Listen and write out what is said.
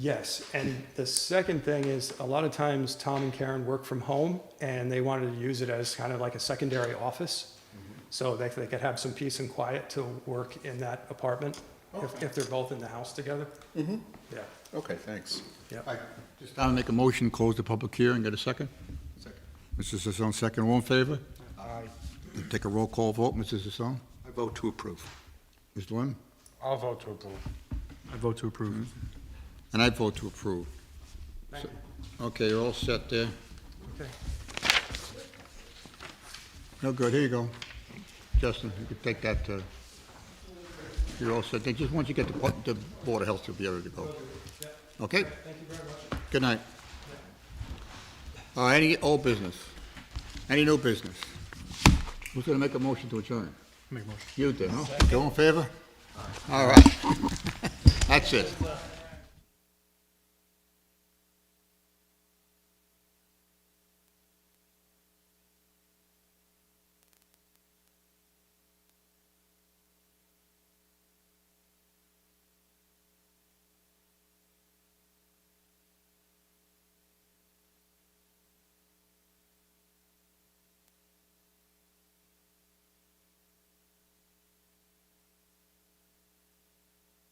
Yes, and the second thing is, a lot of times Tom and Karen work from home, and they wanted to use it as kind of like a secondary office. So they, they could have some peace and quiet to work in that apartment, if, if they're both in the house together. Mm-hmm. Yeah. Okay, thanks. Just I'll make a motion, close the public hearing, get a second? Second. Mrs. Sisson, second, all in favor? Aye. Take a roll call vote, Mrs. Sisson? I vote to approve. Mr. Lynn? I'll vote to approve. I vote to approve. And I vote to approve. Thank you. Okay, you're all set there. Okay. No good, here you go. Justin, you can take that, uh, you're all set. Then just once you get the, pu- the Board of Health, you'll be ready to go. Okay? Thank you very much. Good night. Uh, any old business? Any new business? Who's gonna make a motion to adjourn? Make a motion. You did, huh? Go in favor? All right. That's it.